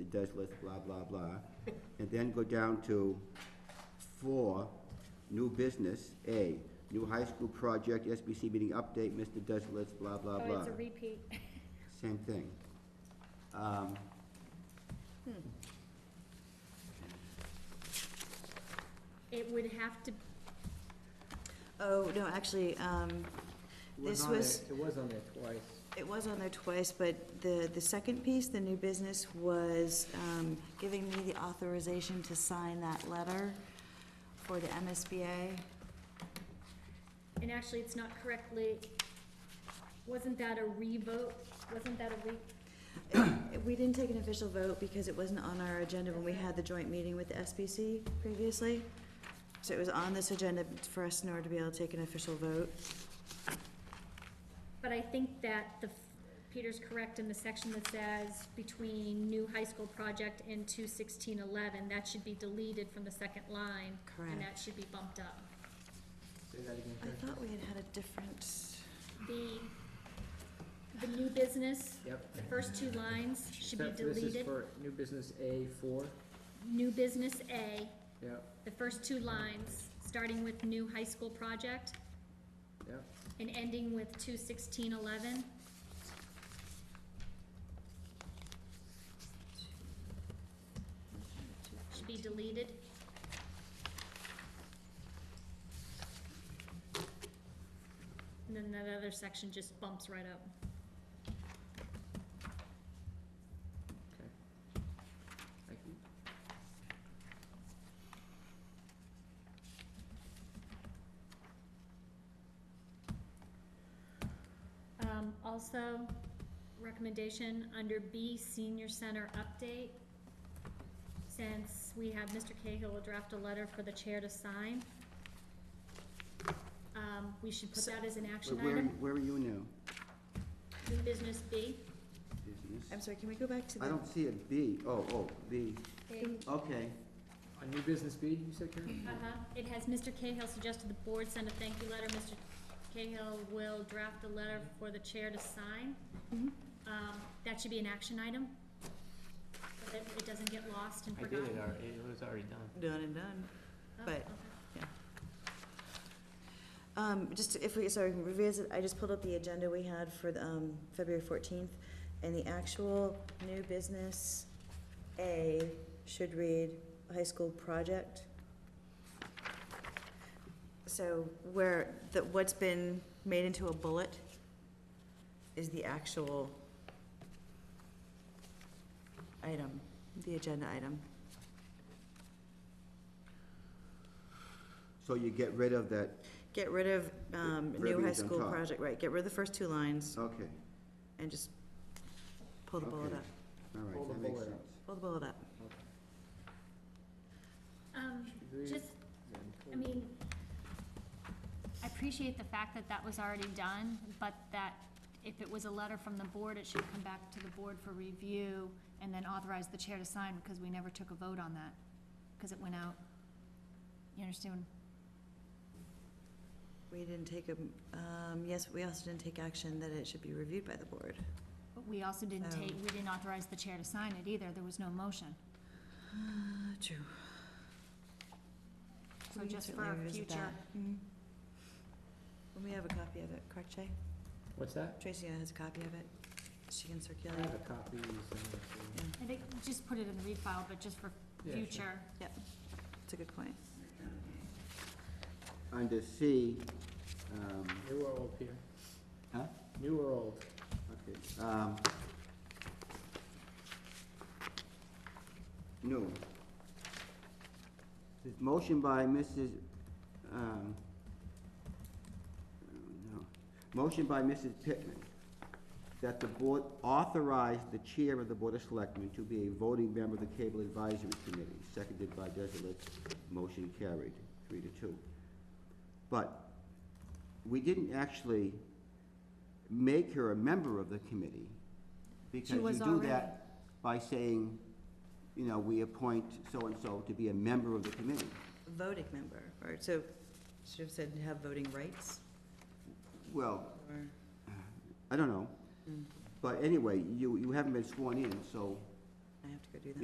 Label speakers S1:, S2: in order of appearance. S1: it does list blah, blah, blah. And then go down to four, new business, A, new high school project, SBC meeting update, Mr. does list blah, blah,
S2: Oh,
S1: blah.
S2: it's a repeat.
S1: Same thing. Um,
S2: It would have to,
S3: Oh, no, actually, um,
S4: It was
S3: This
S4: on there-
S3: was-
S4: It was on there twice.
S3: it was on there twice, but the, the second piece, the new business, was um, giving me the authorization to sign that letter for the MSBA.
S2: and actually, it's not correctly, wasn't that a revote? Wasn't that a re,
S3: We didn't take an official vote because it wasn't on our agenda when we had the joint meeting with the SBC previously. So it was on this agenda for us in order to be able to take an official vote.
S2: but I think that the, Peter's correct in the section that says between new high school project and two sixteen eleven, that should be deleted from the second line. And that
S3: Correct.
S2: should be bumped up.
S4: Say that again,
S3: I
S4: Karen.
S3: thought we had had a different,
S2: The, the new business,
S4: Yep.
S2: the first two lines should be
S4: Except for This is
S2: deleted.
S4: for new business A four,
S2: New business A,
S4: yep,
S2: the first two lines, starting with new high school project,
S4: yep,
S2: and ending with two sixteen eleven. Should be deleted. And then that other section just bumps right up.
S4: okay. Thank you.
S2: Um, also, recommendation under B, senior center update. Since we have Mr. Cahill will draft a letter for the chair to sign. Um, we should put that as an
S1: where-
S2: action
S1: Where,
S2: item,
S1: where are you now?
S2: new business B.
S3: I'm
S1: Business?
S3: sorry, can we go back to the?
S1: I don't see a B. Oh, oh, B, okay.
S4: On new business B, you said, Karen?
S2: Uh-huh, it has Mr. Cahill suggested the board send a thank you letter, Mr. Cahill will draft a letter for the chair to sign.
S3: Mhm.
S2: Um, that should be an action item, so that it doesn't get lost and
S5: I did
S2: forgotten.
S5: it already, it was already done.
S3: Done and done.
S2: Oh,
S3: but-
S2: okay.
S3: Um, just if we, sorry, can revisit, I just pulled up the agenda we had for, the, um, February fourteenth, and the actual new business A should read high school project. So where, the, what's been made into a bullet is the actual item, the agenda item.
S1: So you get rid of that,
S3: Get rid of, um, new high
S1: Verbiage on
S3: school
S1: top.
S3: project, right, get rid of the first two lines.
S1: okay,
S3: and just pull the bullet
S1: Okay.
S3: up,
S1: all
S4: Pull
S1: right,
S4: the
S1: that makes
S4: bullet
S1: sense.
S4: out.
S3: pull the bullet up.
S2: Um,
S4: Should we-
S2: just,
S4: then pull-
S2: I mean, I appreciate the fact that that was already done, but that if it was a letter from the board, it should come back to the board for review and then authorize the chair to sign, because we never took a vote on that, because it went out. You understand?
S3: We didn't take a, um, yes, we also didn't take action that it should be reviewed by the board.
S2: But we also didn't take, we didn't authorize the chair to sign it either, there was no motion.
S3: True.
S2: So
S3: We can
S2: just for
S3: certainly
S2: our
S3: revisit
S2: future,
S3: that. Mhm. Well, we have a copy of it, correct, Jay?
S4: What's that?
S3: Tracy has a copy of it, she can
S4: I
S3: circulate
S4: have a
S3: it.
S4: copy. you sent it to me.
S3: Yeah,
S2: I think, just put it in the read file, but just for
S4: Yeah, sure.
S2: future.
S3: It's a good point.
S1: Under C, um,
S4: New or old, Peter?
S1: huh?
S4: New or old?
S1: Okay, um. No. This Motion by Mrs., um, no, motion by Mrs. Pittman that the board authorize the chair of the Board of Selectmen to be a voting member of the Cable Advisory Committee, seconded by Desilts. Motion carried, three to two. But we didn't actually make her a member of the committee. Because you
S2: was
S1: do that by saying, you know, we appoint so-and-so to be a member of the committee.
S3: Voting member, or so, should have said have voting rights,
S1: Well,
S3: or?
S1: I don't know.
S3: Mm.
S1: But anyway, you, you haven't been sworn in, so
S3: I have to go do that.